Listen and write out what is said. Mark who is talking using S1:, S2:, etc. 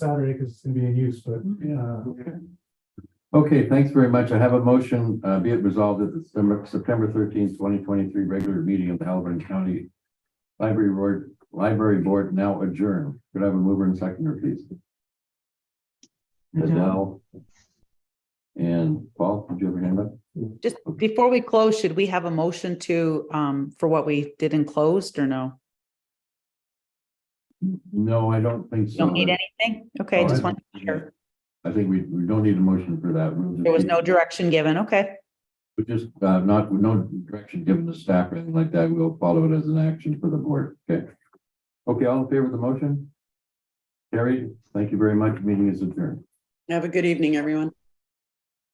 S1: Saturday because it's gonna be in use, but, uh,
S2: Okay, thanks very much. I have a motion, uh, be it resolved at the September, September thirteenth, twenty twenty-three regular meeting of the Halliburton County Library Board, Library Board now adjourned. Could I have a mover and seconder, please? Adele. And Paul, did you have your hand up?
S3: Just before we close, should we have a motion to, um, for what we did in closed or no?
S2: No, I don't think so.
S3: Don't need anything? Okay,
S2: No,
S3: just
S2: I-
S3: want, to be sure.
S2: I think we, we don't need a motion for that. We'll just
S3: there was
S2: keep-
S3: no direction given. Okay,
S2: But just, uh, not, with no direction given to staff or anything like that, we'll follow it as an action for the board, okay? Okay, all in favor of the motion? Carried, thank you very much, meeting is adjourned.
S4: Have a good evening, everyone.